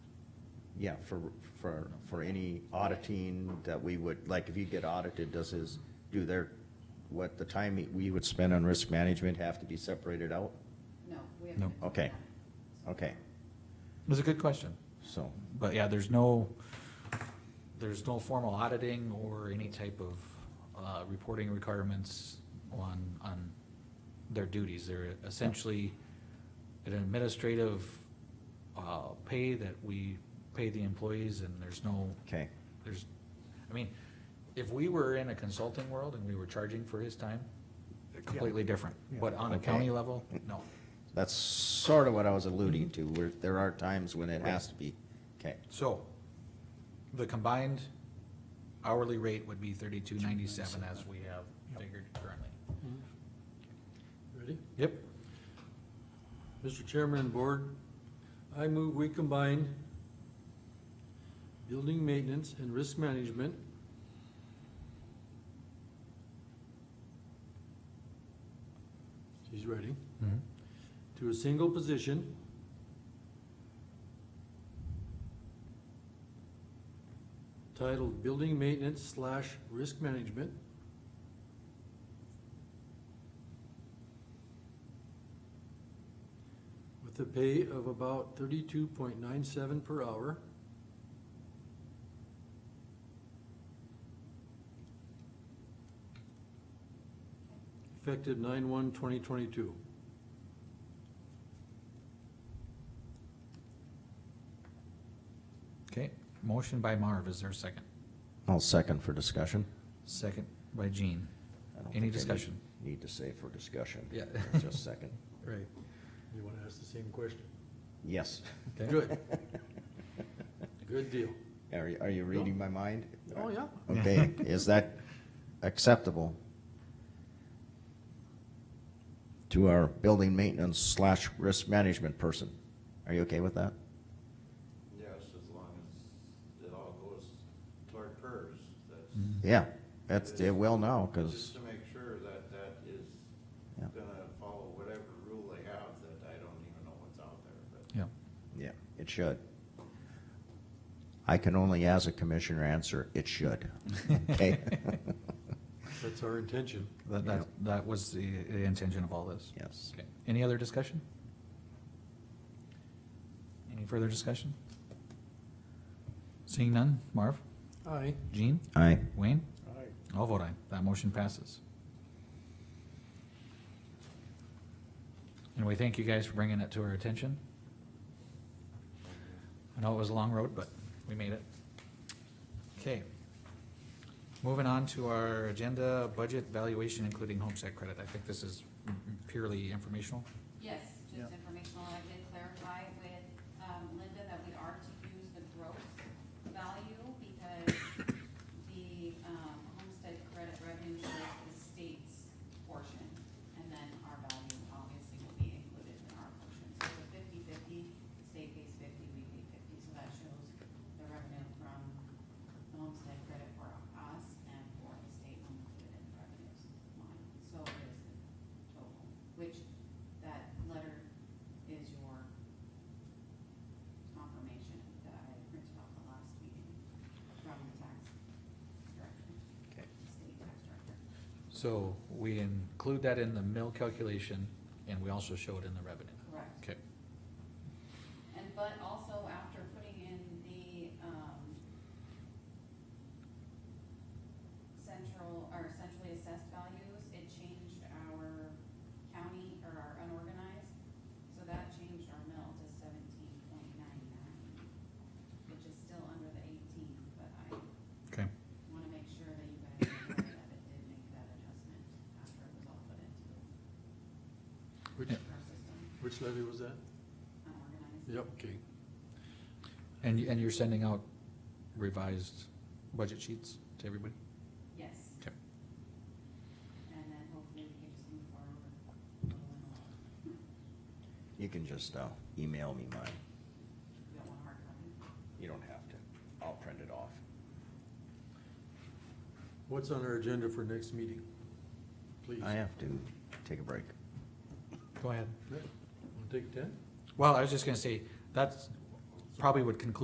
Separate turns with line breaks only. yeah, for, for, for any auditing that we would, like, if you get audited, does his, do their, what the time we would spend on risk management have to be separated out?
No, we
No.
haven't.
Okay. Okay,
It was a good question.
so,
But yeah, there's no, there's no formal auditing or any type of, uh, reporting requirements on, on their duties. They're essentially an administrative, uh, pay that we pay the employees and there's no,
okay,
there's, I mean, if we were in a consulting world and we were charging for his time, completely different. But on a
Okay.
county level, no.
that's sort of what I was alluding to, where there are times when it has to be, okay,
So, the combined hourly rate would be thirty-two ninety-seven as we have figured currently.
Ready?
Yep.
Mr. Chairman and Board, I move we combine building maintenance and risk management she's ready, to a single position titled Building Maintenance slash Risk Management with a pay of about thirty-two point nine seven per hour. Effective nine one twenty twenty-two.
Okay, motion by Marv, is there a second?
I'll second for discussion.
Second by Gene.
I don't
Any
think I need-
discussion?
Need to say for discussion.
Yeah.
Just second,
Right. You wanna ask the same question?
yes.
Okay.
Good. Good deal.
Are, you- are you reading my mind?
Oh, yeah.
Okay, is that acceptable? To our building maintenance slash risk management person? Are you okay with that?
Yes, as long as it all goes toward PERS, that's.
Mm-hmm. Yeah, that's, it will now,
Just
cause,
to make sure that that is
Yeah.
gonna follow whatever rule they have, that I don't even know what's out there, but.
Yeah,
yeah, it should. I can only as a commissioner answer, it should, okay?
That's our intention.
that, that, that was the the intention of all this.
Yes.
Okay, any other discussion? Any further discussion? Seeing none, Marv,
Aye.
Gene,
Aye,
Wayne,
Aye.
I'll vote aye, that motion passes. And we thank you guys for bringing it to our attention. I know it was a long road, but we made it. Okay. Moving on to our agenda, budget valuation including homestead credit, I think this is purely informational.
Yes, just informational, I did clarify with um, Linda that we are to use the gross value because the um, homestead credit revenue shows the state's portion, and then our value obviously will be included in our portion. So it's a fifty-fifty, the state pays fifty, we pay fifty, so that shows the revenue from the homestead credit for us and for the state included in the revenues line. So it is the total, which that letter is your confirmation that I printed off the last meeting from the tax director,
Okay.
state tax director.
So we include that in the mill calculation and we also show it in the revenue.
Correct.
Okay.
And but also after putting in the, um, central, or centrally assessed values, it changed our county, or our unorganized. So that changed our mill to seventeen point nine nine, which is still under the eighteen, but I
Okay.
wanna make sure that you guys are aware that it did make that adjustment after it was all put into
Which,
our system,
which levy was that?
unorganized.
Yep, okay.
And, you- and you're sending out revised budget sheets to everybody?
Yes.
Okay.
And then hopefully we can just move forward with a little and
you can just, uh, email me mine,
You don't want hard copy?
you don't have to, I'll print it off.
What's on our agenda for next meeting? Please.
I have to take a break.
Go ahead.
Want to take a ten?
Well, I was just gonna say, that's probably would conclude